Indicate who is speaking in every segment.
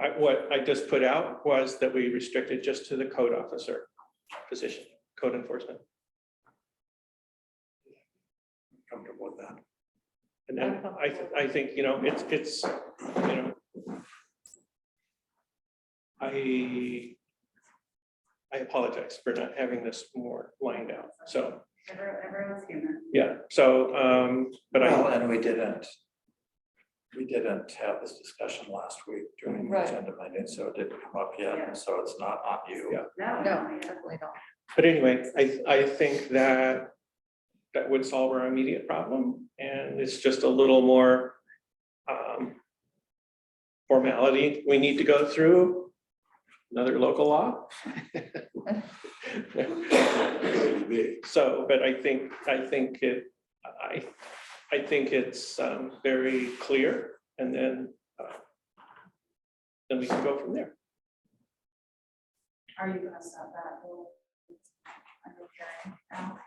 Speaker 1: I, what I just put out was that we restrict it just to the code officer position, code enforcement. Comfortable with that. And then I, th- I think, you know, it's, it's, you know. I, I apologize for not having this more lined out, so,
Speaker 2: Everyone- Everyone's human.
Speaker 1: yeah, so, um, but
Speaker 3: Well,
Speaker 1: I,
Speaker 3: and we didn't. We didn't have this discussion last week during the
Speaker 4: Right.
Speaker 3: agenda meeting, so it didn't come up yet,
Speaker 2: Yeah.
Speaker 3: and so it's not on you.
Speaker 1: Yeah.
Speaker 2: No,
Speaker 4: No,
Speaker 2: no, yeah.
Speaker 4: definitely not.
Speaker 1: but anyway, I, I think that. That would solve our immediate problem, and it's just a little more. um, Formality we need to go through, another local law. So, but I think, I think it, I, I think it's um, very clear and then. uh, Then we can go from there.
Speaker 2: Are you gonna stop that? whole- under hearing now?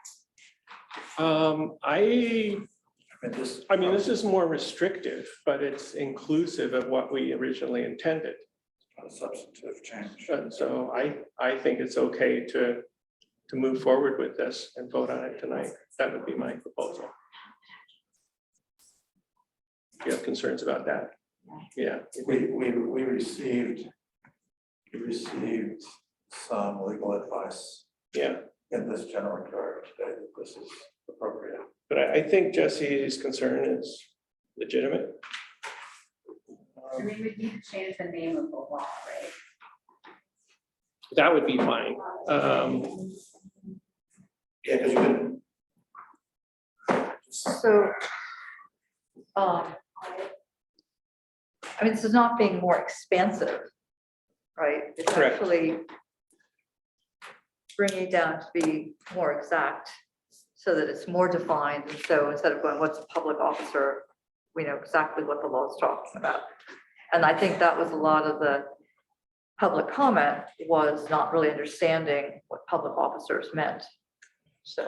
Speaker 1: Um, I,
Speaker 3: I mean, this.
Speaker 1: I mean, this is more restrictive, but it's inclusive of what we originally intended.
Speaker 3: Not a substantive change.
Speaker 1: And so I, I think it's okay to, to move forward with this and vote on it tonight. That would be my proposal. If you have concerns about that, yeah.
Speaker 3: We, we, we received, we received some legal advice
Speaker 1: Yeah,
Speaker 3: in this general regard today that this is appropriate.
Speaker 1: but I, I think Jesse's concern is legitimate.
Speaker 2: I mean, we need to change the name of the law, right?
Speaker 1: That would be fine. Um,
Speaker 3: Yeah, because you didn't.
Speaker 4: So. um, I mean, this is not being more expansive, right? It's
Speaker 1: Correct.
Speaker 4: Actually. Bringing it down to be more exact, so that it's more defined, and so instead of going, what's a public officer? We know exactly what the law is talking about. And I think that was a lot of the public comment was not really understanding what public officers meant. So.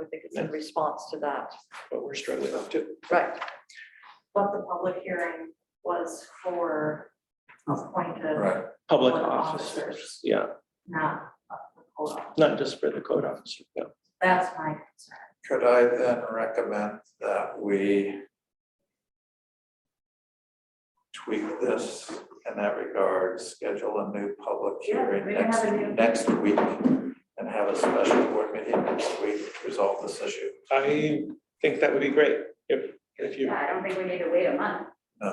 Speaker 4: I think it's in response to that,
Speaker 1: But we're struggling up to.
Speaker 4: right?
Speaker 2: But the public hearing was for appointed,
Speaker 3: Right,
Speaker 1: Public
Speaker 2: Oh. Public
Speaker 1: officers,
Speaker 2: officers.
Speaker 1: yeah,
Speaker 2: not the code officer.
Speaker 1: not just for the code officer, yeah.
Speaker 2: That's my concern.
Speaker 3: could I then recommend that we tweak this in that regard, schedule a new public
Speaker 2: Yeah, we
Speaker 3: hearing
Speaker 2: can
Speaker 3: next,
Speaker 2: have a new-
Speaker 3: next week? And have a special board meeting next week to resolve this issue?
Speaker 1: I think that would be great if, if you,
Speaker 2: Yeah, I don't think we need to wait a month.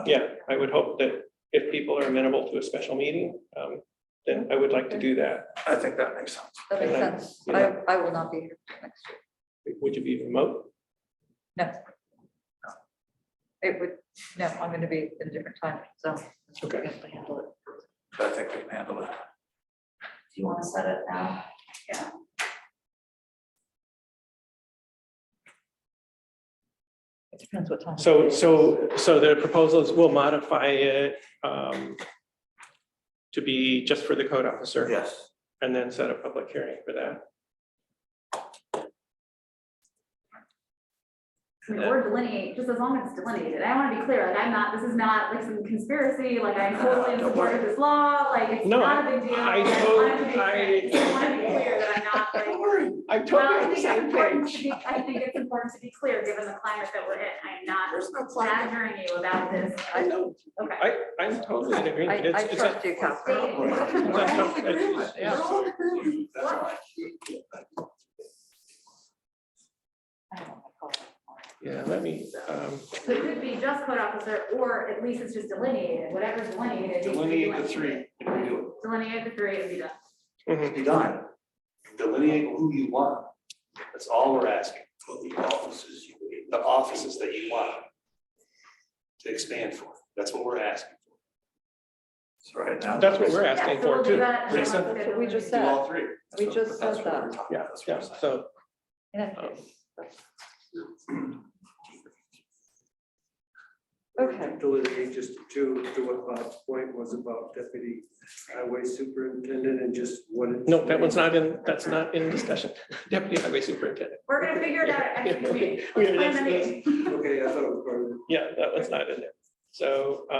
Speaker 1: yeah, I would hope that if people are amenable to a special meeting, um, then I would like to do that.
Speaker 3: I think that makes sense.
Speaker 4: That makes
Speaker 1: Okay.
Speaker 4: sense. I, I will not be here next week.
Speaker 1: Would you be remote?
Speaker 4: No. It would, no, I'm going to be in a different time, so.
Speaker 1: Okay.
Speaker 4: I have to handle it.
Speaker 3: I think we can handle it.
Speaker 2: Do you want to set it now?
Speaker 4: It depends what time.
Speaker 1: So, so, so the proposals will modify it um, to be just for the code officer.
Speaker 3: Yes.
Speaker 1: And then set a public hearing for that.
Speaker 2: I mean, Or delineate, just as long as it's delineated. I want to be clear, like I'm not, this is not like some conspiracy, like I'm totally in
Speaker 3: Don't
Speaker 2: support of this law, like it's
Speaker 1: No,
Speaker 2: not a big deal.
Speaker 1: I
Speaker 2: like, wanted to be
Speaker 1: told- I-
Speaker 2: clear. I want to be clear that I'm not like.
Speaker 1: I'm
Speaker 2: Well, I
Speaker 1: totally on the
Speaker 2: think it's
Speaker 1: same
Speaker 2: important to
Speaker 1: page.
Speaker 2: be, I think it's important to be clear, given the climate that we're in. I'm not
Speaker 3: There's no plan.
Speaker 2: badgering you about this.
Speaker 1: I know,
Speaker 2: Okay.
Speaker 1: I, I'm totally in
Speaker 4: I,
Speaker 1: agreement.
Speaker 4: I
Speaker 1: It's, it's, a-
Speaker 4: trust you,
Speaker 2: Right.
Speaker 4: Catherine.
Speaker 1: Right. yeah, let me, um,
Speaker 2: So It could be just code officer, or at least it's just delineated, whatever's delineated. needs to be
Speaker 5: Delineate the three, and we do
Speaker 2: Delineate the three and be done.
Speaker 1: mhm.
Speaker 5: it, be done. Delineate who you want, that's all we're asking, for the offices, you- the offices that you want to expand for, that's what we're asking.
Speaker 3: So right now.
Speaker 1: that's what we're asking
Speaker 2: Yeah, so
Speaker 1: for
Speaker 2: we'll do
Speaker 1: too.
Speaker 2: that and then
Speaker 1: Pretty
Speaker 2: we'll
Speaker 1: simple.
Speaker 2: look at
Speaker 4: That's what we just
Speaker 5: Do
Speaker 2: delineation.
Speaker 5: all three.
Speaker 3: That's
Speaker 4: We
Speaker 3: what-
Speaker 4: just
Speaker 3: that's
Speaker 4: said
Speaker 3: what we're
Speaker 4: that.
Speaker 3: talking
Speaker 1: Yeah,
Speaker 3: about, that's what
Speaker 1: yeah,
Speaker 3: we're saying.
Speaker 1: so,
Speaker 4: In any
Speaker 1: um,
Speaker 4: case, that's- Okay.
Speaker 6: Delineate just to, to what Bob's point was about deputy highway superintendent and just what. it-
Speaker 1: no, that one's not in, that's not in discussion. Deputy Highway Superintendent.
Speaker 2: We're gonna figure it out at next meeting.
Speaker 1: We have
Speaker 2: Let's plan the
Speaker 1: next-
Speaker 2: meeting.
Speaker 6: Okay, I thought it was part of it.
Speaker 1: Yeah, that one's not in there. So,